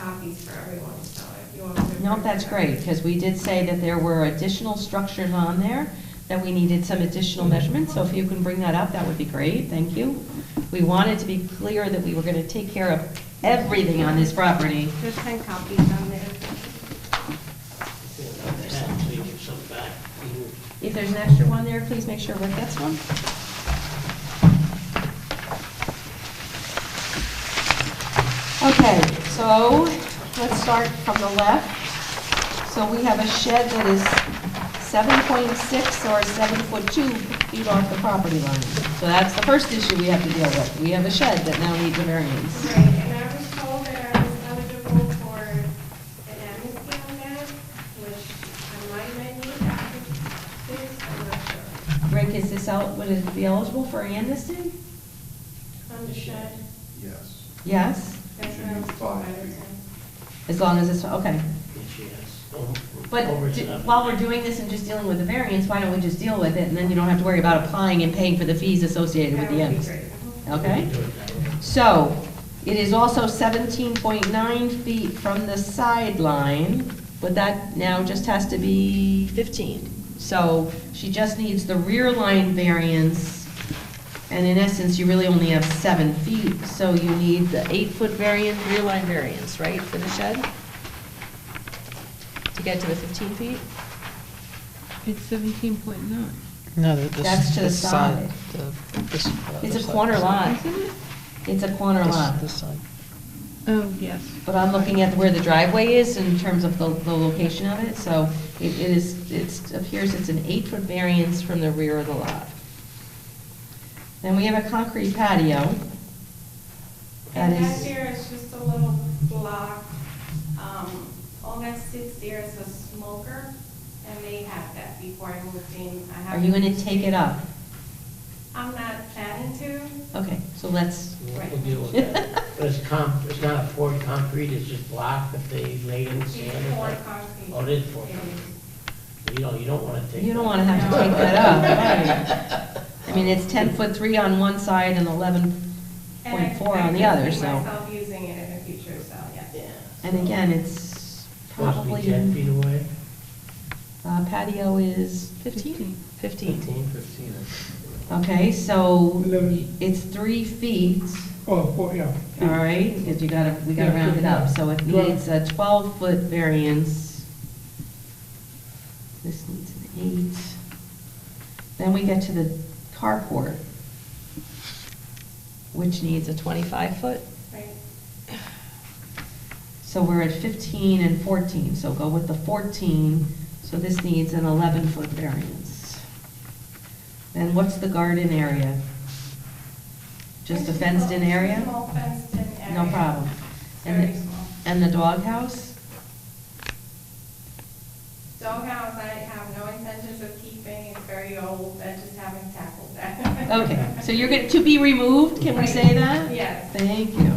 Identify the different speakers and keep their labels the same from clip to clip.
Speaker 1: copies for everyone, so if you want to.
Speaker 2: No, that's great, because we did say that there were additional structures on there, that we needed some additional measurements, so if you can bring that up, that would be great, thank you. We wanted to be clear that we were going to take care of everything on this property.
Speaker 1: There's ten copies on there.
Speaker 3: Actually, give some back.
Speaker 2: If there's an extra one there, please make sure Rick gets one. Okay, so let's start from the left. So we have a shed that is 7.6 or 7.2 feet off the property line. So that's the first issue we have to deal with. We have a shed that now needs a variance.
Speaker 1: Right, and I was told that I was eligible for an amnesty on that, which I might not need after this, I'm not sure.
Speaker 2: Rick, is this out, would it be eligible for amnesty?
Speaker 1: On the shed,
Speaker 4: Yes.
Speaker 2: Yes,
Speaker 1: that's what I was told. I was-
Speaker 2: as long as it's, okay.
Speaker 3: Yes, yes. Oh, over
Speaker 2: But d-
Speaker 3: seven.
Speaker 2: while we're doing this and just dealing with the variance, why don't we just deal with it, and then you don't have to worry about applying and paying for the fees associated with
Speaker 1: That
Speaker 2: the
Speaker 1: would be
Speaker 2: ends?
Speaker 1: great. Mhm.
Speaker 2: Okay?
Speaker 3: Do it that way.
Speaker 2: So, it is also seventeen point nine feet from the sideline, but that now just has to be,
Speaker 5: 15.
Speaker 2: so she just needs the rear line variance, and in essence, you really only have seven feet, so you need the
Speaker 5: Eight-foot variance, rear line variance, right, for the shed? To get to the 15 feet?
Speaker 6: It's seventeen point nine.
Speaker 7: No, the- this.
Speaker 2: That's to the
Speaker 7: this side,
Speaker 2: side.
Speaker 7: the- this- uh,
Speaker 2: It's
Speaker 7: this
Speaker 2: a
Speaker 7: side.
Speaker 2: corner lot.
Speaker 6: Isn't it?
Speaker 2: It's a corner
Speaker 7: This-
Speaker 2: lot.
Speaker 7: This side.
Speaker 6: Oh, yes.
Speaker 2: But I'm looking at where the driveway is in terms of the, the location of it, so it it is, it appears it's an eight-foot variance from the rear of the lot. Then we have a concrete patio. That
Speaker 1: And that
Speaker 2: is,
Speaker 1: there is just a little block, um, all that sits there is a smoker, and they had that before I moved in. I
Speaker 2: are you gonna
Speaker 1: haven't-
Speaker 2: take it up?
Speaker 1: I'm not planning to,
Speaker 2: Okay, so let's,
Speaker 3: We'll- We'll deal with that. But it's con, it's not poured concrete, it's just block that they laid in sand.
Speaker 1: it's
Speaker 3: or
Speaker 1: poured
Speaker 3: something.
Speaker 1: concrete.
Speaker 3: Oh, it is poured
Speaker 1: It
Speaker 3: concrete.
Speaker 1: is.
Speaker 3: You don't, you don't want to take.
Speaker 2: you don't
Speaker 3: that.
Speaker 2: wanna have to take that up, right? I mean, it's ten foot three on one side and eleven
Speaker 1: And I-
Speaker 2: point four on the other,
Speaker 1: I can see
Speaker 2: so.
Speaker 1: myself using it in the future, so,
Speaker 3: Yeah.
Speaker 1: yes.
Speaker 2: And again, it's
Speaker 3: Supposed to be ten
Speaker 2: probably,
Speaker 3: feet away.
Speaker 2: uh, patio is
Speaker 5: 15? 15.
Speaker 3: Fifteen.
Speaker 4: Fifteen.
Speaker 2: Okay, so
Speaker 8: Eleven.
Speaker 2: it's three feet,
Speaker 8: Oh, oh, yeah.
Speaker 2: all right, because you gotta, we gotta round it up, so it needs a twelve-foot variance. This needs an eight. Then we get to the carport, which
Speaker 5: Needs
Speaker 2: needs
Speaker 5: a
Speaker 2: a,
Speaker 5: 25-foot?
Speaker 1: Right.
Speaker 2: so we're at fifteen and fourteen, so go with the fourteen, so this needs an eleven-foot variance. Then what's the garden area? Just a
Speaker 1: It's
Speaker 2: fenced-in
Speaker 1: small-
Speaker 2: area?
Speaker 1: Small fenced-in area.
Speaker 2: No problem. And
Speaker 1: Very
Speaker 2: the-
Speaker 1: small.
Speaker 2: And the doghouse?
Speaker 1: Doghouse, I have no intentions of keeping, it's very old, I just haven't tackled that.
Speaker 2: Okay, so you're going, to be removed, can we say that?
Speaker 1: Yes.
Speaker 2: Thank you.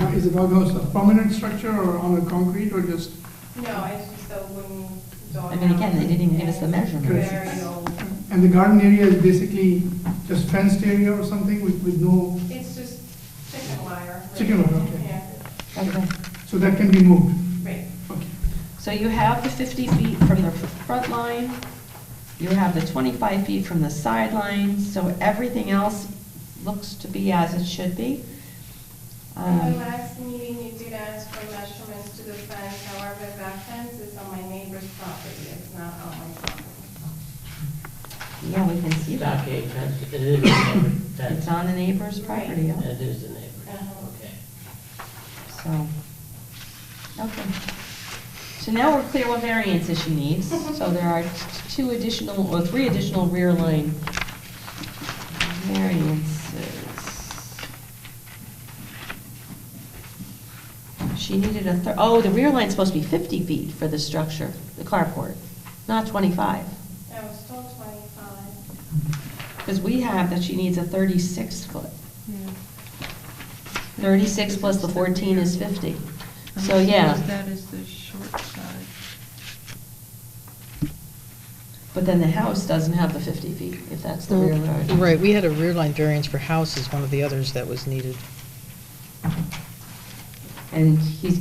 Speaker 8: Uh, Is the doghouse a permanent structure or on a concrete or just?
Speaker 1: No, it's just a wooden doghouse.
Speaker 2: I mean, again, they didn't even give us the measurements.
Speaker 1: Very old.
Speaker 8: And the garden area is basically just fenced area or something with, with no,
Speaker 1: It's just chicken wire. right?
Speaker 8: Chicken wire, okay.
Speaker 1: Yeah,
Speaker 2: Okay.
Speaker 8: so that can be moved?
Speaker 1: right.
Speaker 8: Okay.
Speaker 2: So you have the 50 feet from the front line, you have the 25 feet from the sideline, so everything else looks to be as it should be.
Speaker 1: At the
Speaker 2: Um,
Speaker 1: last meeting, you did ask for measurements to the fence, however, that fence is on my neighbor's property, it's not on my property.
Speaker 2: Yeah, we can see that.
Speaker 3: Stockade fence, it is a neighbor fence.
Speaker 2: It's on the neighbor's property, yeah.
Speaker 3: It is the neighbor,
Speaker 1: Uh-huh.
Speaker 3: okay.
Speaker 2: So, okay. So now we're clear what variances she needs. So there are t- two additional, or three additional rear line variances. She needed a third, oh, the rear line's supposed to be 50 feet for the structure, the carport, not 25.
Speaker 1: I was told twenty-five.
Speaker 2: Because we have that she needs a 36 foot. 36 plus the 14 is 50.
Speaker 6: I'm
Speaker 2: So, yeah.
Speaker 6: surprised That is the short side.
Speaker 2: But then the house doesn't have the 50 feet, if that's the rear yard.
Speaker 7: Mm. Right, we had a rear line variance for houses, one of the others that was needed.
Speaker 2: And he's